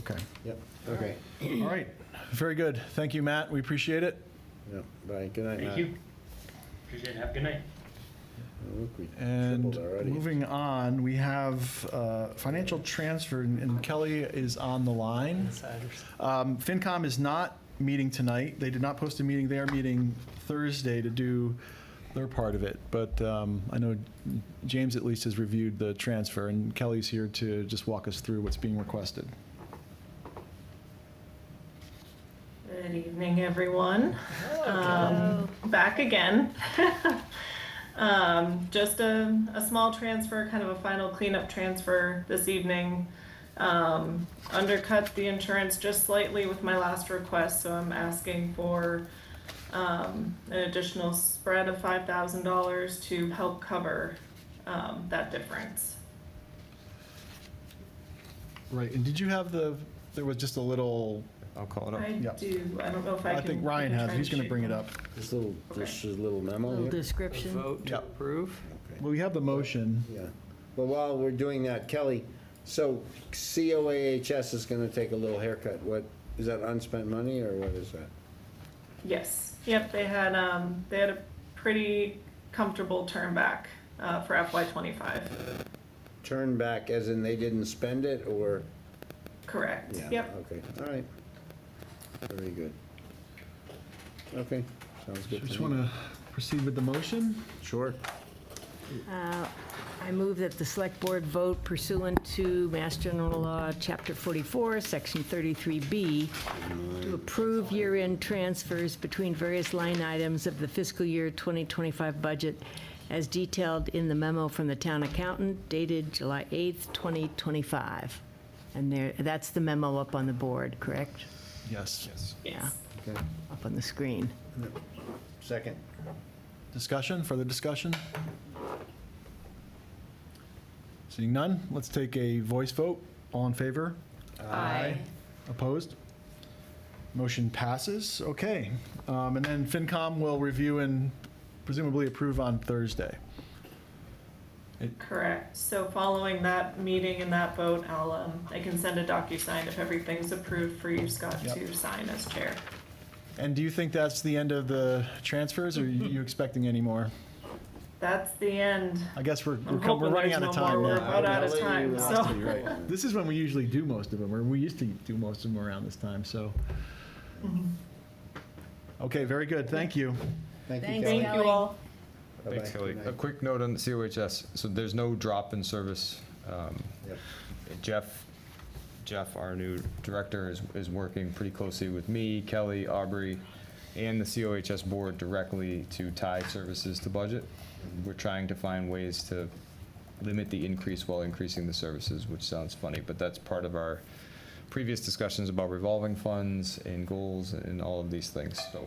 Okay. Yep, okay. All right. Very good. Thank you, Matt. We appreciate it. Yep, bye, good night, Matt. Thank you. Appreciate it. Have a good night. Oh, look, we And tripled already. moving on, we have uh, financial transfer, and- and Kelly is on the line. Um, FinCom is not meeting tonight. They did not post a meeting. They are meeting Thursday to do their part of it. But um, I know James at least has reviewed the transfer, and Kelly's here to just walk us through what's being requested. Good evening, everyone. Um, Back again. Um, Just a, a small transfer, kind of a final cleanup transfer this evening. Um, Undercut the insurance just slightly with my last request, so I'm asking for um, an additional spread of $5,000 to help cover um, that difference. Right, and did you have the, there was just a little, I'll call it up. I Yep. do, I don't know if I can. Oh, I think Ryan I can has, try he's going to shoot bring it one. up. This little, this is a little memo Little here. description. Vote to Yep. approve? Okay. Well, we have the motion. Yeah, but while we're doing that, Kelly, so COAHS is gonna take a little haircut, what, is that unspent money, or what is that? Yes, yep, they had, um, they had a pretty comfortable turn back, uh, for FY twenty-five, Turn back, as in they didn't spend it, or? correct, Yeah, yep. Okay, all right. Very good. Okay, sounds good to me. Just want to proceed with the motion? Sure. Uh, I move that the select board vote pursuant to Mass General Law, Chapter 44, Section 33B, to approve year-end transfers between various line items of the fiscal year 2025 budget as detailed in the memo from the town accountant dated July 8th, 2025. And there, that's the memo up on the board, correct? Yes. Yes. Yeah, Okay, up on the screen. second. Discussion, further discussion? Seeing none, let's take a voice vote. All in favor? Aye. Opposed? Motion passes. Okay. Um, And then FinCom will review and presumably approve on Thursday. Correct, so following that meeting and that vote, I'll, um, I can send a DocuSign if everything's approved for you, Scott, Yep. to sign as chair. And do you think that's the end of the transfers, or are you expecting any more? That's the end. I guess we're I'm we're com- we're hoping running there's out of no time more. now. We're about out of time, so. This is when we usually do most of them, or we used to do most of them around this time, so. Mm-hmm. Okay, very good, thank you. Thank you, Thanks, Kelly. Thank you all. Bye-bye. Thanks, Kelly. Good A night. quick note on the COHS, so there's no drop in service. Um, Yep. Jeff, Jeff, our new director, is, is working pretty closely with me, Kelly, Aubrey, and the COHS board directly to tie services to budget. We're trying to find ways to limit the increase while increasing the services, which sounds funny, but that's part of our previous discussions about revolving funds and goals and all of these things. So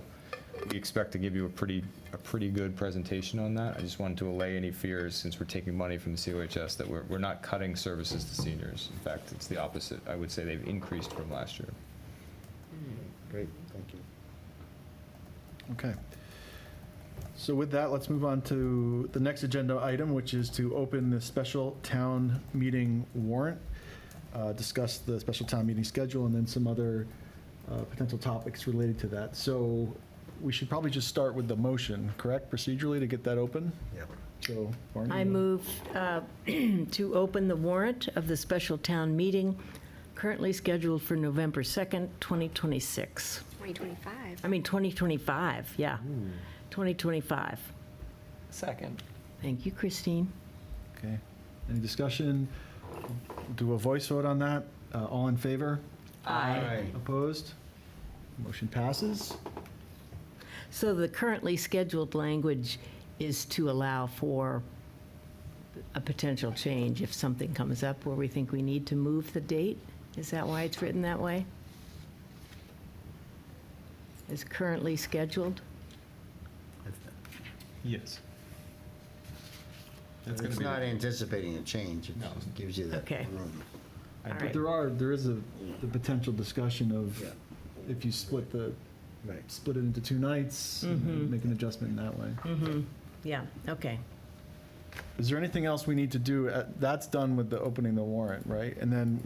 we expect to give you a pretty, a pretty good presentation on that. I just wanted to allay any fears, since we're taking money from the COHS, that we're, we're not cutting services to seniors. In fact, it's the opposite. I would say they've increased from last year. Great, thank you. Okay. So with that, let's move on to the next agenda item, which is to open the special town meeting warrant, uh, discuss the special town meeting schedule, and then some other uh, potential topics related to that. So we should probably just start with the motion, correct, procedurally, to get that open? Yep. So, Barney? I move uh, to open the warrant of the special town meeting currently scheduled for November 2nd, 2026. 2025. I mean, 2025, yeah. 2025. Second. Thank you, Christine. Okay. Any discussion? Do a voice vote on that? Uh, All in favor? Aye. Opposed? Motion passes. So the currently scheduled language is to allow for a potential change if something comes up where we think we need to move the date? Is that why it's written that way? Is currently scheduled? Yes. It's not anticipating a change, it just gives you that Okay. room. All But right. there are, there is a, the potential discussion of Yeah. if you split the, Right. split it into two nights, Mm-hmm. and make an adjustment in that way. Yeah, okay. Is there anything else we need to do? Uh, That's done with the opening the warrant, right? And then